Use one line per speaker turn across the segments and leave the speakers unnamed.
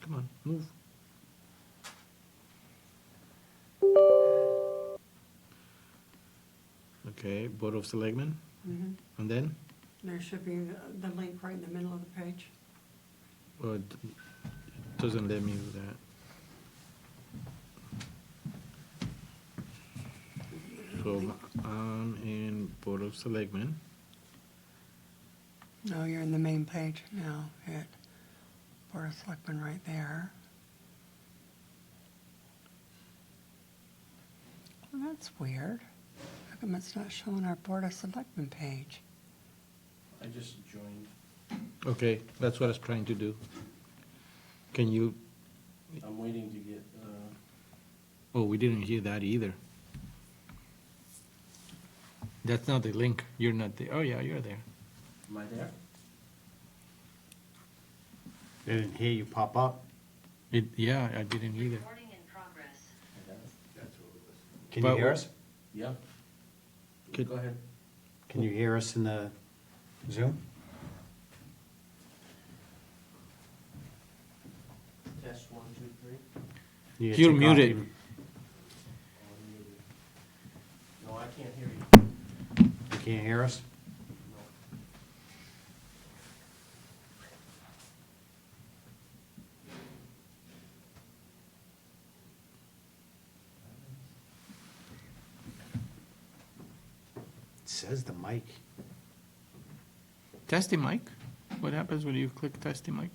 Come on, move. Okay, Board of Selectmen,
Mhm.
and then,
There should be the link right in the middle of the page.
oh, it doesn't let me do that. So, I'm in Board of Selectmen,
No, Oh, you're in the main page now, hit Board of Selectmen right there. Well, that's weird. How come it's not showing our Board of Selectmen page?
I just joined.
okay, that's what I was trying to do. Can you,
I'm waiting to get, uh,
oh, we didn't hear that either. That's not the link, you're not there, oh yeah, you're there.
am I there?
They didn't hear you pop up.
It, yeah, I didn't either.
Recording in progress.
I got it.
Can
But
you hear
what-
us?
Yeah.
Could-
Go ahead.
Can you hear us in the Zoom?
Test one, two, three.
You
You're
took off
muted.
even-
All muted. No, I can't hear you.
You can't hear us?
No.
It says the mic.
Testing mic? What happens when you click testing mic?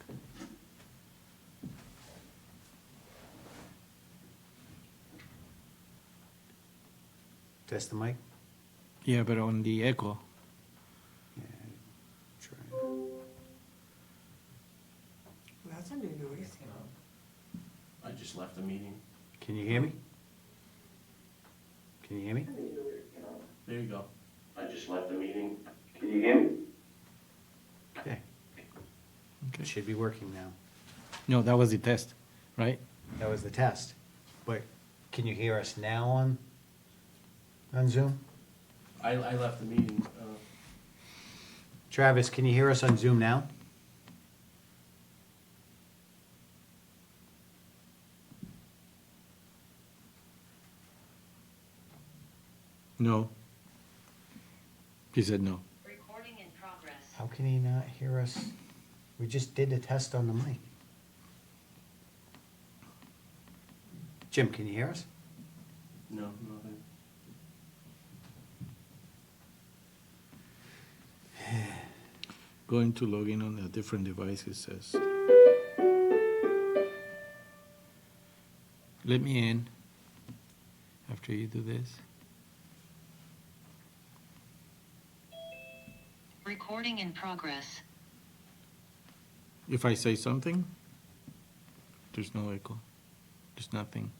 Test the mic?
Yeah, but on the echo.
Yeah. Try.
That's a new noise.
I just left the meeting.
Can you hear me? Can you hear me?
There you go. I just left the meeting.
Okay. It
Okay.
should be working now.
No, that was the test, right?
That was the test. But can you hear us now on, on Zoom?
I, I left the meeting, uh,
Travis, can you hear us on Zoom now?
No. He said no.
Recording in progress.
How can he not hear us? We just did the test on the mic. Jim, can you hear us?
no, nothing.
Going to log in on a different device, it says. Let me in after you do this.
Recording in progress.
If I say something, there's no echo. There's nothing.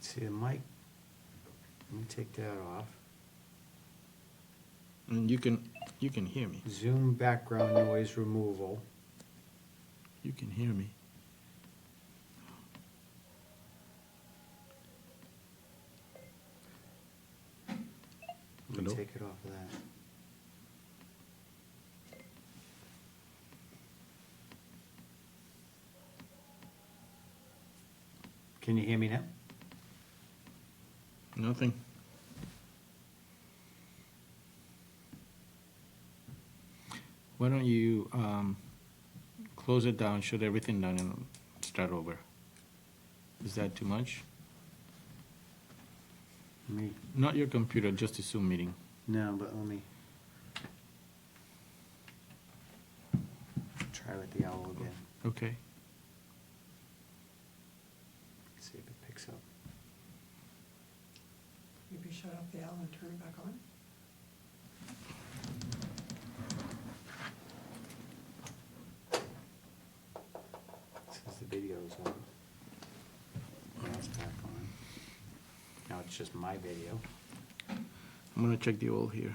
See the mic? Let me take that off.
And you can you can hear me.
Zoom background noise removal.
You can hear me.
Let me
Hello?
take it off of that. Can you hear me now?
Nothing. Why don't you um, close it down, shut everything down, and start over? Is that too much?
Let me,
Not your computer, just a Zoom meeting.
no, but let me. Try with the owl again,
Okay.
see if it picks up.
Maybe shut off the owl and turn it back on?
Since the video's on. Now it's back on. Now it's just my video.
I'm gonna check the old here.